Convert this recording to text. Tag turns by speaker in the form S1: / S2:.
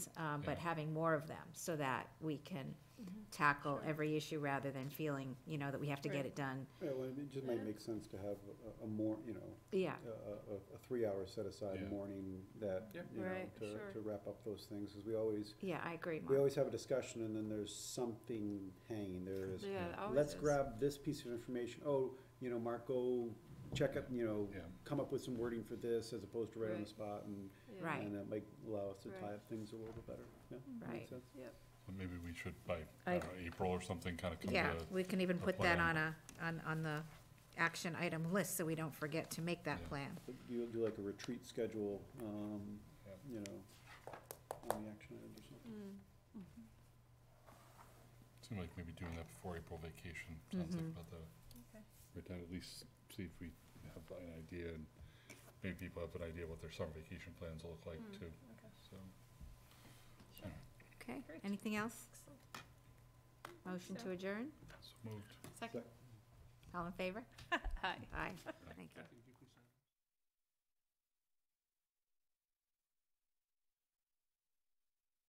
S1: um, but
S2: Yeah.
S1: having more of them so that we can tackle every issue rather than feeling, you know, that we have to get
S3: Mm-hmm. Right.
S1: it done.
S4: Well, it just might make sense to have a, a more, you know,
S1: Yeah,
S4: a, a, a- a three-hour set-aside
S2: Yeah.
S4: morning that,
S2: Yep.
S4: you know,
S3: Right, sure.
S4: to, to wrap up those things, because we always,
S1: yeah, I agree,
S4: we
S1: Mark.
S4: always have a discussion and then there's something hanging, there is,
S3: Yeah, it always
S4: let's
S3: is.
S4: grab this piece of information, oh, you know, Mark, go check up, you know,
S2: Yeah.
S4: come up with some wording for this as opposed to right on the
S3: Right.
S4: spot and,
S3: Yeah.
S1: Right.
S4: and that might allow us to tie
S3: Right.
S4: up things a little bit better, yeah,
S1: Right.
S4: makes sense.
S3: Yep,
S2: So Maybe we should by, I
S1: I-
S2: don't know, April or something, kind of come to,
S1: Yeah, we can even
S2: a
S1: put that on
S2: plan.
S1: a, on, on the action item list so we don't forget to make that
S2: Yeah.
S1: plan.
S4: But You'll do like a retreat schedule, um,
S2: Yep.
S4: you know, on the action items or something.
S2: seem like maybe doing that before April vacation, sounds like
S1: Mhm.
S2: about the, right time, at least see if we have an idea, and maybe people have an idea what their summer vacation plans look like
S3: Mm,
S2: too,
S3: okay.
S2: so.
S1: Okay,
S3: Great.
S1: anything else?
S3: Excellent.
S1: Motion
S3: so.
S1: to adjourn?
S2: So moved.
S3: Second.
S1: All in favor?
S3: Hi.
S1: Aye, thank you.